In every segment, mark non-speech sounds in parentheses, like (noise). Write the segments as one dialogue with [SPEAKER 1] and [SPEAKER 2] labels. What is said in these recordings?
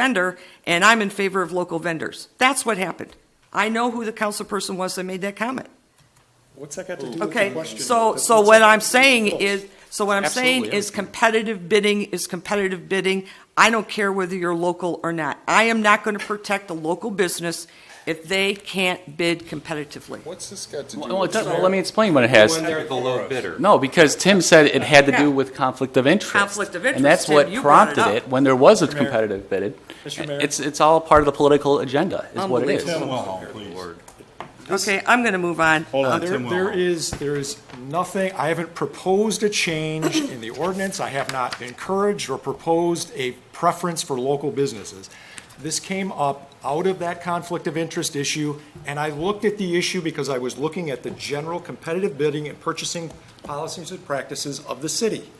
[SPEAKER 1] vendor, and I'm in favor of local vendors. That's what happened. I know who the council person was that made that comment.
[SPEAKER 2] What's that got to do with the
[SPEAKER 1] Okay,
[SPEAKER 2] question?
[SPEAKER 1] so,
[SPEAKER 2] That's
[SPEAKER 1] so
[SPEAKER 2] what's
[SPEAKER 1] what
[SPEAKER 2] that-
[SPEAKER 1] I'm saying
[SPEAKER 2] Oh,
[SPEAKER 1] is, so what I'm saying
[SPEAKER 3] Absolutely,
[SPEAKER 1] is
[SPEAKER 3] yeah.
[SPEAKER 1] competitive bidding is competitive bidding. I don't care whether you're local or not. I am not going to protect a local business if they can't bid competitively.
[SPEAKER 2] What's this got to do?
[SPEAKER 3] Well, it
[SPEAKER 2] with
[SPEAKER 3] does- well,
[SPEAKER 2] fair-
[SPEAKER 3] let me explain what it has.
[SPEAKER 2] When they're the low bidder.
[SPEAKER 3] No, because Tim said it had to do with conflict of interest.
[SPEAKER 1] Conflict of interest,
[SPEAKER 3] And that's
[SPEAKER 1] Tim,
[SPEAKER 3] what
[SPEAKER 1] you brought it
[SPEAKER 3] prompted
[SPEAKER 1] up.
[SPEAKER 3] it when there was a
[SPEAKER 2] Mayor.
[SPEAKER 3] competitive bid.
[SPEAKER 2] Mr. Mayor.
[SPEAKER 3] It's, it's all part of the political agenda, is what it is.
[SPEAKER 1] Unbelievable.
[SPEAKER 4] please.
[SPEAKER 1] Okay, I'm going to move on.
[SPEAKER 4] Hold on,
[SPEAKER 2] There,
[SPEAKER 4] Tim
[SPEAKER 2] there
[SPEAKER 4] Wilhelm.
[SPEAKER 2] is, there is nothing, I haven't proposed a change in the ordinance. I have not encouraged or proposed a preference for local businesses. This came up out of that conflict of interest issue, and I looked at the issue because I was looking at the general competitive bidding and purchasing policies and practices of the city.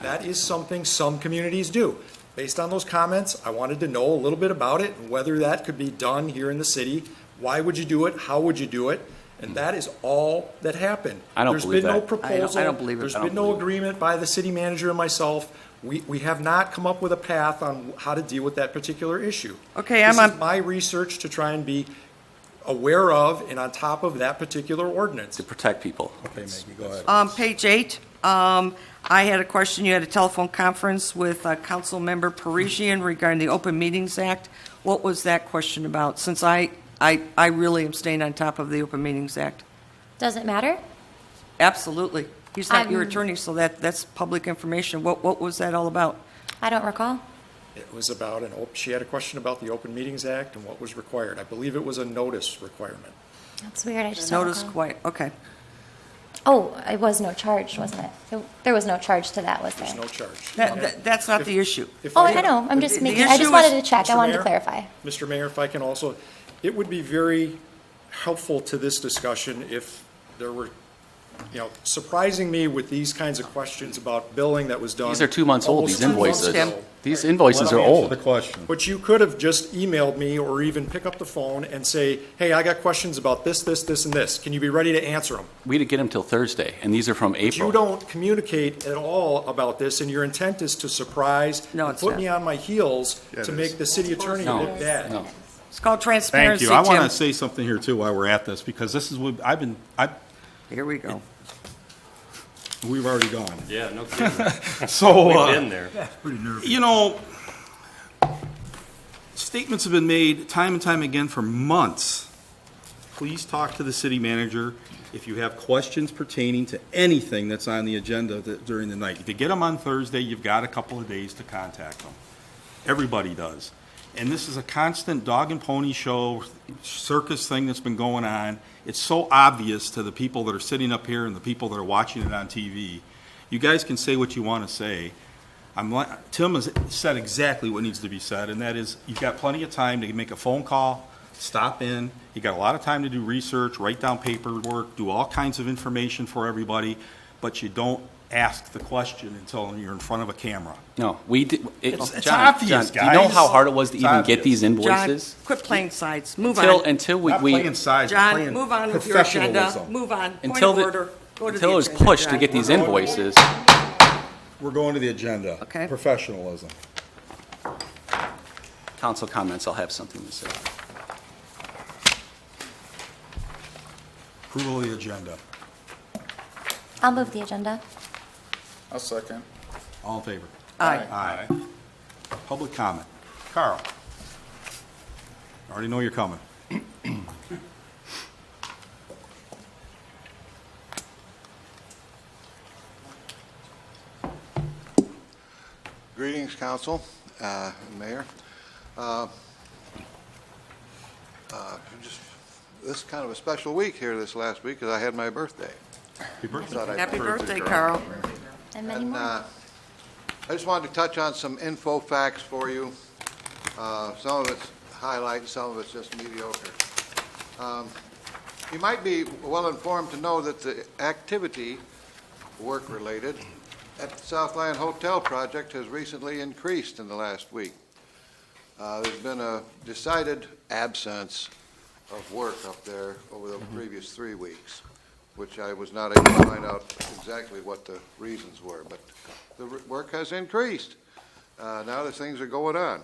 [SPEAKER 2] That is something some communities do. Based on those comments, I wanted to know a little bit about it, and whether that could be done here in the city. Why would you do it? How would you do it? And that is all that happened.
[SPEAKER 3] I don't believe that.
[SPEAKER 2] There's been no
[SPEAKER 1] I don't-
[SPEAKER 2] proposal.
[SPEAKER 1] I don't believe it. I
[SPEAKER 2] There's
[SPEAKER 1] don't
[SPEAKER 2] been no
[SPEAKER 3] believe it.
[SPEAKER 2] agreement by the city manager and myself. We, we have not come up with a path on how to deal with that particular issue.
[SPEAKER 1] Okay, I'm
[SPEAKER 2] This
[SPEAKER 1] on-
[SPEAKER 2] is my research to try and be aware of and on top of that particular ordinance.
[SPEAKER 3] To protect people.
[SPEAKER 1] Um, page eight, um, I had a question. You had a telephone conference with, uh, Councilmember Parisian regarding the Open Meetings Act. What was that question about? Since I, I, I really am staying on top of the Open Meetings Act.
[SPEAKER 5] Does it matter?
[SPEAKER 1] Absolutely. He's not your
[SPEAKER 5] I'm-
[SPEAKER 1] attorney, so that, that's public information. What, what was that all about?
[SPEAKER 5] I don't recall.
[SPEAKER 2] It was about an, op- she had a question about the Open Meetings Act and what was required. I believe it was a notice requirement.
[SPEAKER 5] That's weird. I just don't
[SPEAKER 1] Notice
[SPEAKER 5] recall.
[SPEAKER 1] quite, okay.
[SPEAKER 5] Oh, it was no charge, wasn't it? There- There was no charge to that, was there?
[SPEAKER 2] There's no charge.
[SPEAKER 1] That, that- that's not the issue.
[SPEAKER 2] If
[SPEAKER 5] Oh,
[SPEAKER 2] we-
[SPEAKER 5] I know. I'm just
[SPEAKER 1] The
[SPEAKER 5] making, I
[SPEAKER 1] issue
[SPEAKER 5] just wanted
[SPEAKER 1] is-
[SPEAKER 5] to check. I
[SPEAKER 2] Mr.
[SPEAKER 5] wanted to
[SPEAKER 2] Mayor?
[SPEAKER 5] clarify.
[SPEAKER 2] Mr. Mayor, if I can also, it would be very helpful to this discussion if there were, you know, surprising me with these kinds of questions about billing that was done.
[SPEAKER 3] These are two months old,
[SPEAKER 2] almost
[SPEAKER 3] these
[SPEAKER 2] two months
[SPEAKER 3] invoices.
[SPEAKER 2] ago.
[SPEAKER 3] These invoices are old.
[SPEAKER 4] The question.
[SPEAKER 2] But you could have just emailed me or even pick up the phone and say, hey, I got questions about this, this, this, and this. Can you be ready to answer them?
[SPEAKER 3] We didn't get them till Thursday, and these are from
[SPEAKER 2] You
[SPEAKER 3] April.
[SPEAKER 2] don't communicate at all about this, and your intent is to surprise
[SPEAKER 1] No,
[SPEAKER 2] and
[SPEAKER 1] it's
[SPEAKER 2] put
[SPEAKER 1] not.
[SPEAKER 2] me on my heels
[SPEAKER 4] Yeah, it
[SPEAKER 2] to
[SPEAKER 4] is.
[SPEAKER 2] make the city attorney
[SPEAKER 3] No,
[SPEAKER 2] look bad.
[SPEAKER 3] no.
[SPEAKER 1] It's called
[SPEAKER 4] Thank
[SPEAKER 1] transparency,
[SPEAKER 4] you. I want to
[SPEAKER 1] Tim.
[SPEAKER 4] say something here too while we're at this, because this is what, I've been, I,
[SPEAKER 1] Here we go.
[SPEAKER 4] we've already gone.
[SPEAKER 6] Yeah,
[SPEAKER 4] (laughs)
[SPEAKER 6] no kidding.
[SPEAKER 4] So.
[SPEAKER 6] We've
[SPEAKER 4] uh,
[SPEAKER 6] been there.
[SPEAKER 4] You know, statements have been made time and time again for months. Please talk to the city manager if you have questions pertaining to anything that's on the agenda th- during the night. If you get them on Thursday, you've got a couple of days to contact them. Everybody does. And this is a constant dog and pony show, circus thing that's been going on. It's so obvious to the people that are sitting up here and the people that are watching it on TV. You guys can say what you want to say. I'm li Tim has said exactly what needs to be said, and that is, you've got plenty of time to make a phone call, stop in, you got a lot of time to do research, write down paperwork, do all kinds of information for everybody, but you don't ask the question until you're in front of a camera.
[SPEAKER 3] No, we did. it-
[SPEAKER 4] It's- it's
[SPEAKER 3] John,
[SPEAKER 4] obvious,
[SPEAKER 3] John, Do you know
[SPEAKER 4] guys.
[SPEAKER 3] how hard it was to
[SPEAKER 4] It's
[SPEAKER 3] even get
[SPEAKER 4] obvious.
[SPEAKER 3] these
[SPEAKER 1] John,
[SPEAKER 3] invoices?
[SPEAKER 1] quit playing sides. Move
[SPEAKER 3] Until,
[SPEAKER 1] on.
[SPEAKER 3] until we.
[SPEAKER 4] Not
[SPEAKER 3] we-
[SPEAKER 4] playing sides, we're
[SPEAKER 1] John,
[SPEAKER 4] playing
[SPEAKER 1] move on with your agenda.
[SPEAKER 4] professionalism.
[SPEAKER 1] Move on. Point
[SPEAKER 3] Until
[SPEAKER 1] of
[SPEAKER 3] the-
[SPEAKER 1] order. Go to the
[SPEAKER 3] Until it was
[SPEAKER 1] agenda,
[SPEAKER 3] pushed to
[SPEAKER 1] John.
[SPEAKER 3] get these invoices.
[SPEAKER 4] We're going to the agenda.
[SPEAKER 1] Okay.
[SPEAKER 4] Professionalism.
[SPEAKER 3] Council comments, I'll have something to say.
[SPEAKER 4] Approval of the agenda.
[SPEAKER 5] I'll move the agenda.
[SPEAKER 7] I'll second.
[SPEAKER 4] All in favor?
[SPEAKER 1] Aye.
[SPEAKER 4] Aye. Public comment. Carl? I Already know you're coming.
[SPEAKER 8] Greetings, council, uh, and mayor. Uh, uh, just- This is kind of a special week here this last week, because I had my birthday.
[SPEAKER 4] Happy birthday.
[SPEAKER 8] Thought I'd-
[SPEAKER 1] Happy birthday, Carl.
[SPEAKER 5] And many
[SPEAKER 8] And
[SPEAKER 5] more.
[SPEAKER 8] uh, I just wanted to touch on some info facts for you. Uh, Some of it's highlight, some of it's just mediocre. Um, You might be well-informed to know that the activity, work-related, at the Southland Hotel project has recently increased in the last week. Uh, There's been a decided absence of work up there over the previous three weeks, which I was not able to find out exactly what the reasons were, but the r- work has increased. Uh, Now that things are going on.